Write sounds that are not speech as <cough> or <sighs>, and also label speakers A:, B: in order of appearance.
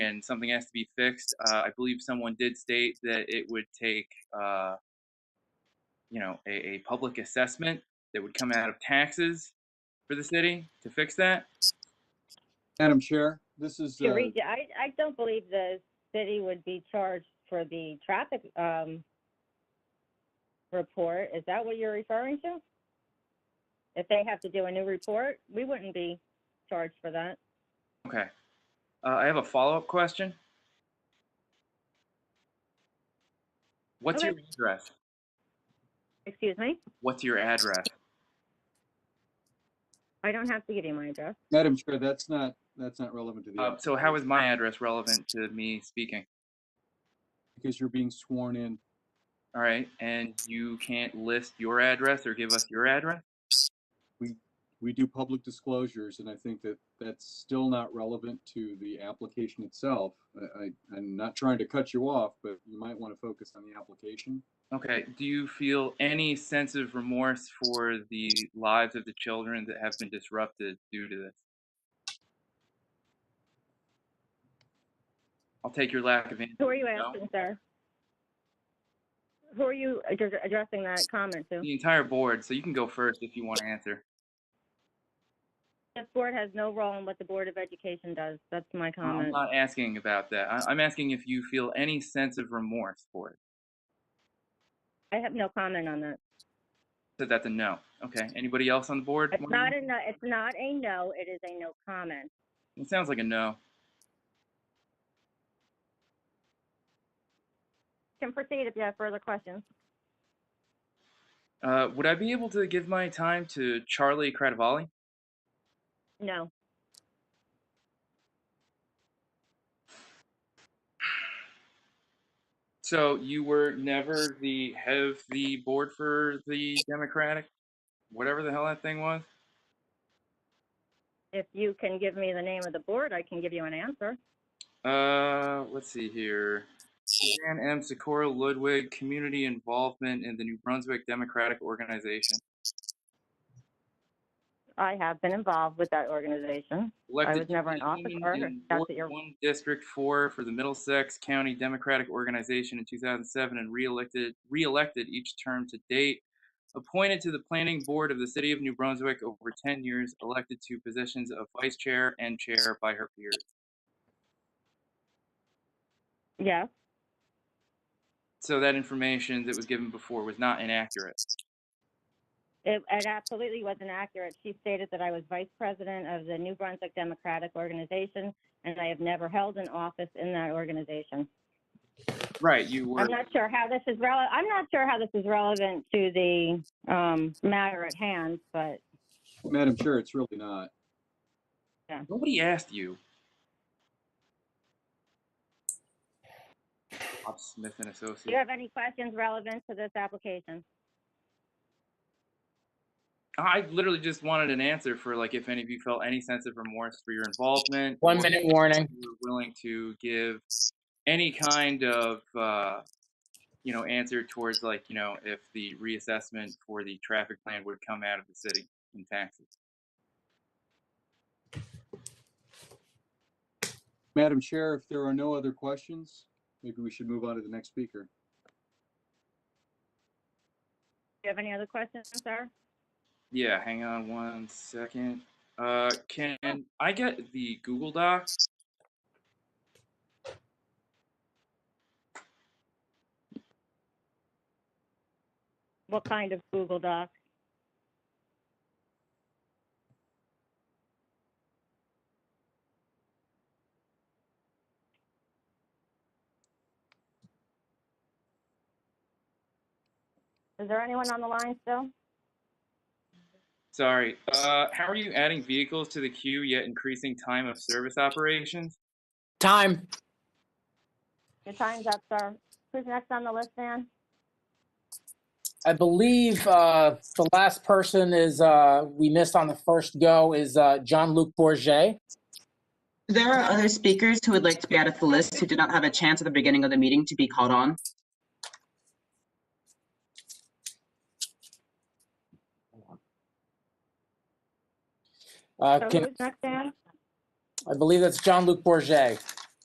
A: and something has to be fixed. Uh, I believe someone did state that it would take, uh, you know, a, a public assessment that would come out of taxes for the city to fix that.
B: Madam Chair, this is, uh,
C: Teresa, I, I don't believe the city would be charged for the traffic, um, report. Is that what you're referring to? If they have to do a new report, we wouldn't be charged for that.
A: Okay. Uh, I have a follow-up question. What's your
C: Okay.
A: address?
C: Excuse me?
A: What's your address?
C: I don't have to give you my address.
B: Madam Chair, that's not, that's not relevant to the,
A: Uh,
B: act,
A: so how is my address relevant to me speaking?
B: because you're being sworn in.
A: All right, and you can't list your address or give us your address?
B: We do public disclosures, and I think that that's still not relevant to the application itself. I, I- I'm not trying to cut you off, but you might want to focus on the application.
A: Okay, do you feel any sense of remorse for the lives of the children that have been disrupted due to this? I'll take your lack of answer.
C: Who are you
A: No.
C: asking, sir? Who are you address- addressing that comment to?
A: The entire board, so you can go first if you want to answer.
C: This board has no role in what the Board of Education does. That's my
A: I'm
C: comment.
A: not asking about that. I- I'm asking if you feel any sense of remorse for it.
C: I have no comment on that.
A: Said that's a no. Okay, anybody else on the board?
C: It's
A: wanna-
C: not a no, it's not a no, it is a no comment.
A: It sounds like a no.
C: Can proceed if you have further questions.
A: Uh, would I be able to give my time to Charlie Cradavali?
C: No.
A: So you were never the head of the board for the Democratic, whatever the hell that thing was.
C: If you can give me the name of the board, I can give you an answer.
A: Uh, let's see here. Suzanne M. Socorro Ludwig, community involvement in the New Brunswick Democratic Organization.
C: I have been involved with that organization.
A: Elected
C: was never an officer.
A: 18 in
C: That's
A: Ward
C: what you're-
A: One District Four for the Middlesex County Democratic Organization in two thousand seven and reelected, reelected each term to date. Appointed to the planning board of the city of New Brunswick over ten years, elected to positions of vice chair and chair by her peers.
C: Yes,
A: So that information that was given before was not inaccurate.
C: it, it absolutely wasn't accurate. She stated that I was vice president of the New Brunswick Democratic Organization, and I have never held an office in that organization.
A: Right, you were,
C: I'm not sure how this is rele, I'm not sure how this is relevant to the, um, matter at hand, but
B: Madam Chair, it's really not.
A: nobody asked
C: <sighs>
A: you. Bob Smith and Associates.
C: do you have any questions relevant to this application?
A: I literally just wanted an answer for like if any of you felt any sense of remorse for your involvement.
D: One
A: or
D: minute
A: if
D: warning.
A: you were willing to give any kind of uh, you know answer towards like you know if the reassessment for the traffic plan would come out of the city in taxes.
B: Madam Chair, if there are no other questions, maybe we should move on to the next speaker.
C: Do you have any other questions, sir?
A: Yeah, hang on one second. Uh, can I get the Google Doc?
C: What kind of Google Doc? Is there anyone on the line still?
A: Sorry. Uh, how are you adding vehicles to the queue yet increasing time of service operations?
D: Time.
C: Your time's up, sir. Who's next on the list, Dan?
D: I believe uh, the last person is, uh, we missed on the first go, is uh, Jean-Luc Bourget.
E: There are other speakers who would like to be added to the list who did not have a chance at the beginning of the meeting to be called on.
D: Uh,
C: So
D: can-
C: who's next, Dan?
D: Uh, I believe that's Jean-Luc Bourget.